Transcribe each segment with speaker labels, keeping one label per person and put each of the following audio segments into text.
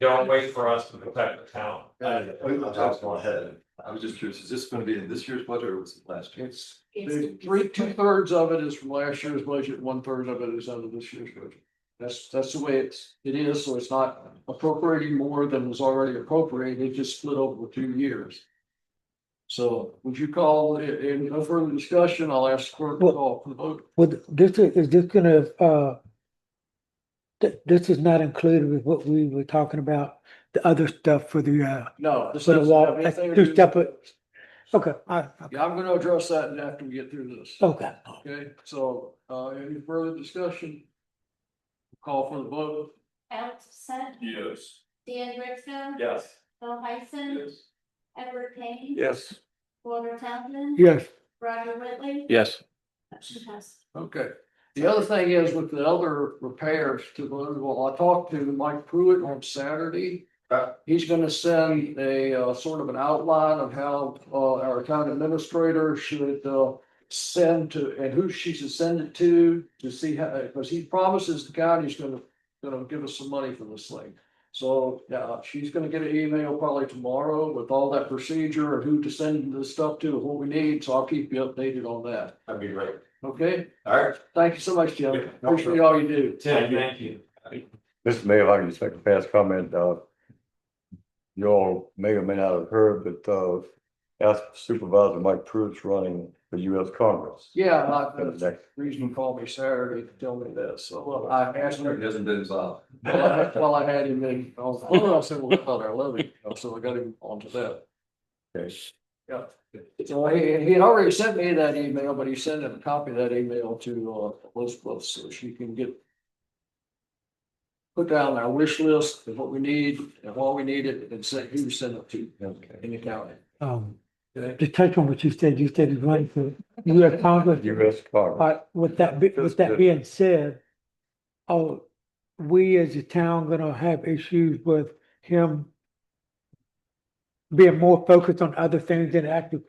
Speaker 1: Don't wait for us to protect the town.
Speaker 2: Yeah, I think the top's gone ahead.
Speaker 3: I was just curious, is this gonna be in this year's budget or was it last year?
Speaker 2: It's the three, two thirds of it is from last year's budget, one third of it is out of this year's budget. That's, that's the way it's, it is, so it's not appropriating more than was already appropriated, it just split over the two years. So would you call, i- in no further discussion, I'll ask clerk to call for the vote.
Speaker 4: Would this, is this gonna, uh, th- this is not included with what we were talking about, the other stuff for the, uh,
Speaker 2: No. this
Speaker 4: for the
Speaker 2: doesn't have
Speaker 4: wall, that's
Speaker 2: anything to do
Speaker 4: two
Speaker 2: with-
Speaker 4: separate. Okay, I,
Speaker 2: Yeah, I'm gonna address that after we get through this.
Speaker 4: okay.
Speaker 2: Okay, so, uh, any further discussion? Call for the vote.
Speaker 5: Alex Sen.
Speaker 1: Yes.
Speaker 5: Dan Rickson.
Speaker 1: Yes.
Speaker 5: Bill Heisen. Edward Payne.
Speaker 1: Yes.
Speaker 5: Walter Townsend.
Speaker 4: Yes,
Speaker 5: Roger Whitley.
Speaker 6: Yes,
Speaker 5: Motion passes.
Speaker 2: Okay, the other thing is with the other repairs to the, well, I talked to Mike Pruitt on Saturday.
Speaker 1: Okay.
Speaker 2: He's gonna send a, uh, sort of an outline of how, uh, our town administrator should, uh, send to, and who she should send it to, to see how, because he promises the county's gonna, gonna give us some money for this thing. So, yeah, she's gonna get an email probably tomorrow with all that procedure and who to send the stuff to, what we need, so I'll keep you updated on that,
Speaker 1: That'd be great.
Speaker 2: okay?
Speaker 1: All right.
Speaker 2: Thank you so much,
Speaker 1: Yeah,
Speaker 2: Jim.
Speaker 1: no
Speaker 2: Appreciate all you do.
Speaker 1: Tim, thank you.
Speaker 7: Mr. Mayor, if I can just make a fast comment, uh. You all may or may not have heard, but, uh, ask Supervisor Mike Pruitt's running for US Congress.
Speaker 2: Yeah, not
Speaker 7: For the
Speaker 2: the
Speaker 7: next-
Speaker 2: reason you called me Saturday to tell me this, so well, I asked
Speaker 3: It
Speaker 2: him.
Speaker 3: hasn't been resolved.
Speaker 2: Well, I had him in, I was, well, I said, well, I thought I love him, Oh, so I got him onto that.
Speaker 7: Okay.
Speaker 2: Yeah. So he, he had already sent me that email, but he sent a copy of that email to, uh, Elizabeth, so she can get put down our wish list of what we need and what we need it and send, who to send it to
Speaker 7: Okay.
Speaker 2: in the county.
Speaker 4: um,
Speaker 2: Okay?
Speaker 4: to touch on what you said, you said it's running for US Congress.
Speaker 7: US Congress.
Speaker 4: Uh, with that, be- with that being said, oh, we as a town gonna have issues with him being more focused on other things than actually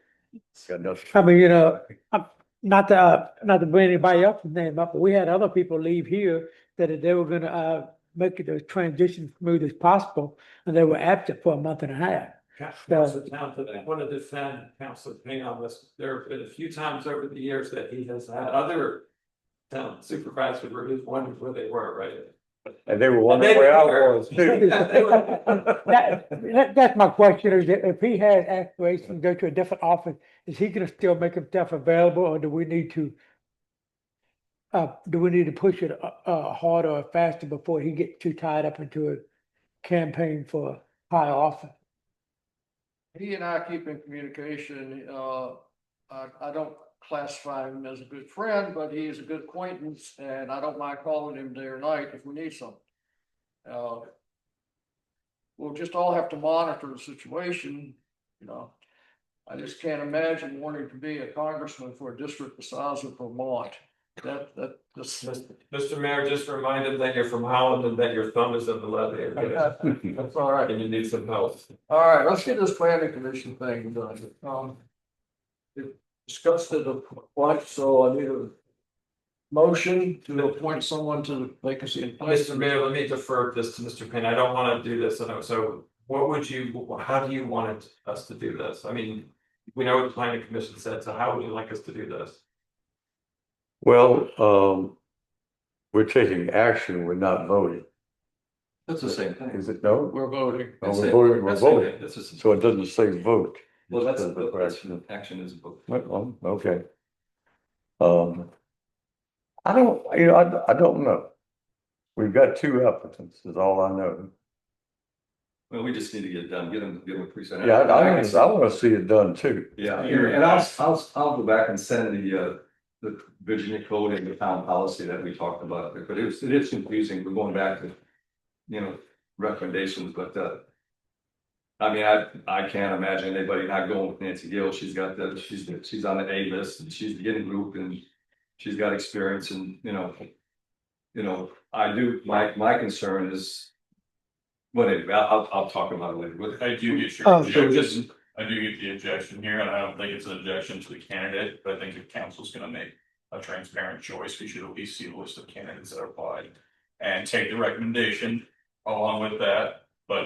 Speaker 7: Got nothing.
Speaker 4: I mean, you know, I'm, not to, uh, not to bring anybody else's name up, but we had other people leave here that if they were gonna, uh, make it the transition smooth as possible, and they were absent for a month and a half.
Speaker 1: Council Townsend, I want to defend Council Payne on this. There have been a few times over the years that he has had other town supervisors where he's wondered where they were, right?
Speaker 7: And they were wondering where I was. too.
Speaker 4: That, that, that's my question, is that if he has aspirations to go to a different office, is he gonna still make himself available, or do we need to? Uh, do we need to push it, uh, uh, harder or faster before he gets too tied up into a campaign for high office?
Speaker 2: He and I keep in communication, uh, I, I don't classify him as a good friend, but he is a good acquaintance, and I don't mind calling him day or night if we need something. Uh, We'll just all have to monitor the situation, you know. I just can't imagine wanting to be a congressman for a district the size of Vermont. That, that, this,
Speaker 1: Mister Mayor, just remind him that you're from Holland and that your thumb is in the leather. area.
Speaker 2: that's all right.
Speaker 1: And you need some help.
Speaker 2: All right, let's get this planning commission thing done. Um. we Discussed it a bunch, so I need a. Motion to appoint someone to the vacancy in place.
Speaker 1: Mister Mayor, let me defer this to Mister Payne. I don't want to do this. and So what would you, how do you want us to do this? I mean, we know what the planning commission said, so how would you like us to do this?
Speaker 7: Well, um, we're taking action, we're not voting.
Speaker 3: That's the same thing.
Speaker 7: Is it no?
Speaker 2: We're voting.
Speaker 7: Oh,
Speaker 3: That's
Speaker 7: We're
Speaker 3: it.
Speaker 7: voting, we're
Speaker 3: That's the same
Speaker 7: voting.
Speaker 3: thing. That's just-
Speaker 7: So it doesn't say vote.
Speaker 3: Well, that's,
Speaker 7: It says
Speaker 3: that's,
Speaker 7: action.
Speaker 3: action is a book.
Speaker 7: Well, um, okay. Um. I don't, you know, I, I don't know. We've got two applicants, is all I know.
Speaker 3: Well, we just need to get it done, get them, get them presented.
Speaker 7: Yeah, I, I, I wanna see it done too.
Speaker 3: Yeah, and I'll, I'll, I'll go back and send the, uh, the Virginia code and the town policy that we talked about, but it was, it is confusing, we're going back to. You know, recommendations, but, uh. I mean, I, I can't imagine anybody not going with Nancy Gill, she's got the, she's, she's on the A list, and she's the getting group, and she's got experience and, you know. You know, I do, my, my concern is. But anyway, I'll, I'll- I'll talk about it later, but
Speaker 8: I do get
Speaker 4: Oh,
Speaker 8: your
Speaker 3: so
Speaker 8: objection,
Speaker 3: just-
Speaker 8: I do get the objection here, and I don't think it's an objection to the candidate, but I think the council's gonna make a transparent choice, we should at least see the list of candidates that applied. And take the recommendation along with that,